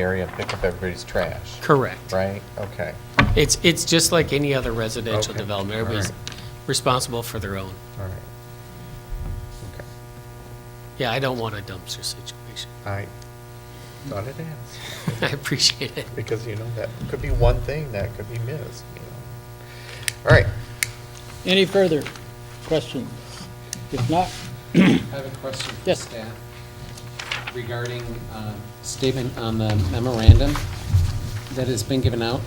area and pick up everybody's trash, Correct. right? Okay, It's, it's just like any other residential Okay. development. Everybody's All responsible for their own. all right. Okay, Yeah, I don't want a dumpster situation. I thought it asked, I appreciate it. because, you know, that could be one thing that could be missed, you know. All right, Any further questions? If not, I have a question for Yes. staff regarding uh, statement on the memorandum that has been given out.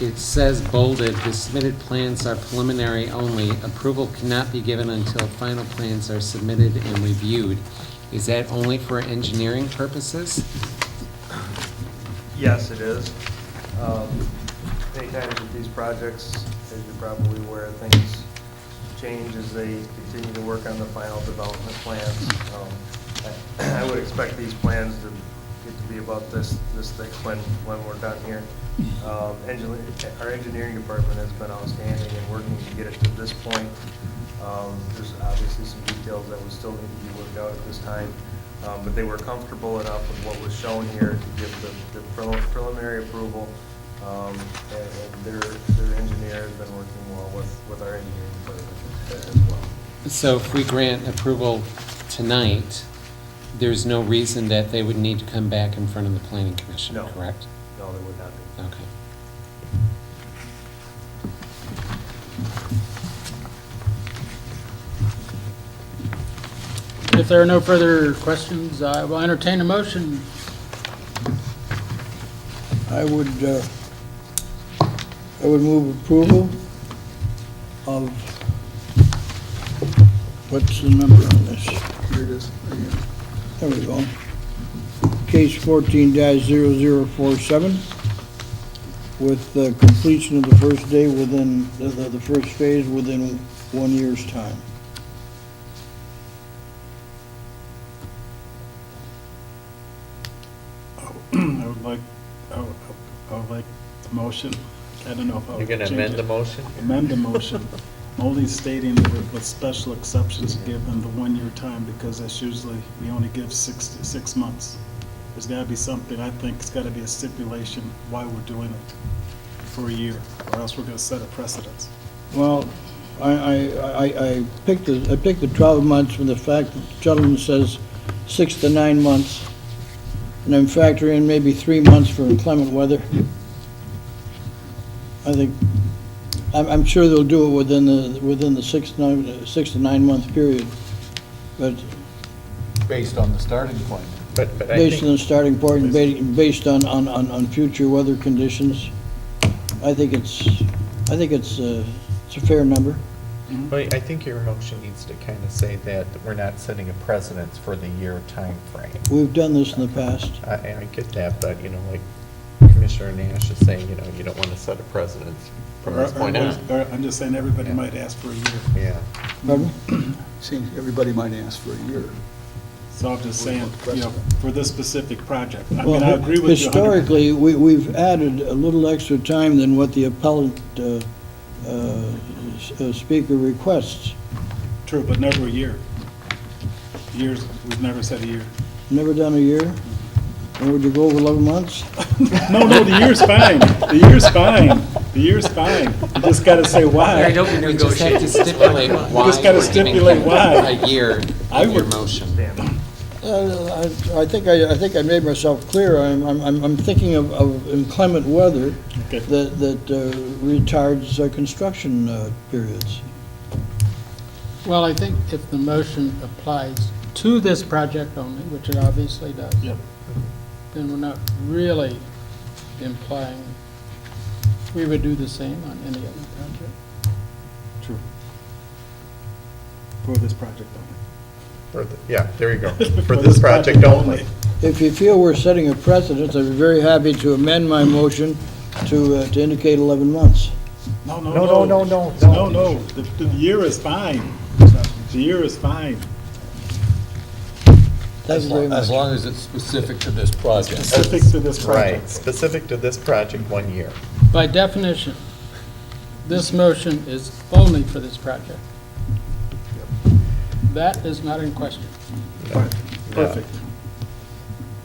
It says bolded, the submitted plans are preliminary only. Approval cannot be given until final plans are submitted and reviewed. Is that only for engineering purposes? Yes, it is. Um, Anytime with these projects, as you're probably aware, things change as they continue to work on the final development plans. Um, I I would expect these plans to get to be about this, this thick when, when we're done here. Um, engineer- Our engineering department has been outstanding in working to get it to this point. Um, There's obviously some details that would still need to be worked out at this time, um, but they were comfortable enough with what was shown here to give the- the prelim- preliminary approval. Um, And and their, their engineer has been working well with, with our engineering department as well. So if we grant approval tonight, there's no reason that they would need to come back in front of the planning commission, No. correct? No, they would not be. Okay. if there are no further questions, I will entertain a motion. I would, uh, I would move approval of, what's the number on this? Here it is. There we go. Case fourteen 47 with the completion of the first day within, the, the the first phase within one year's time. I would like, I would- I would like the motion, I don't know if I you're would gonna change amend the it. motion? Amend the motion, only stating that with with special exceptions given the one-year time, because that's usually, we only give six, six months. There's gotta be something, I think it's gotta be a stipulation why we're doing it for a year, or else we're gonna set a precedence. Well, I, I, I, I picked the, I picked the twelve months from the fact that the gentleman says six to nine months. And then factor in maybe three months for inclement weather. I think, I'm, I'm sure they'll do it within the, within the six, nine, six to nine month period. But based on the starting point. But, but I based on think, the starting point, and ba- based on, on, on, on future weather conditions, I think it's, I think it's, uh, it's a fair number. but I think your motion needs to kind of say that we're not setting a precedence for the year timeframe. We've done this in the past. I, I get that, but, you know, like Commissioner Nash is saying, you know, you don't want to set a precedence from Or- this or- point on. or- I'm just saying, everybody might ask for a year. Yeah. Pardon? Seems everybody might ask for a year. So I'm just saying, you know, for this specific project. I mean, I Well, agree with you. 100%. Historically, we, we've added a little extra time than what the appellant, uh, uh, s- uh, speaker requests. True, but never a year. Years, we've never said a year. Never done a year? And would you go over eleven months? No, no, the year's fine. The year's fine. The year's fine. You just gotta say I why. don't We just have to negotiate. stipulate why just gotta we're giving stipulate them why. a year I of your would- motion. Uh, I, I think I, I think I made myself clear. I'm, I'm- I'm, I'm thinking of, of inclement weather Okay. that, that uh, retards uh, construction uh, periods. Well, I think if the motion applies to this project only, which it obviously does, Yep. then we're not really implying we would do the same on any other project. True. For this project only. For the- Yeah, there you go. For this project only. If you feel we're setting a precedent, I'd be very happy to amend my motion to, uh, to indicate eleven months. No, No, no, no, no, no. no. No, no, the, the year is fine. The year is fine. Thank you very much. As long as it's specific to this project. Specific to this Right, project. specific to this project, one year. By definition, this motion is only for this project. That is not in question. Perfect.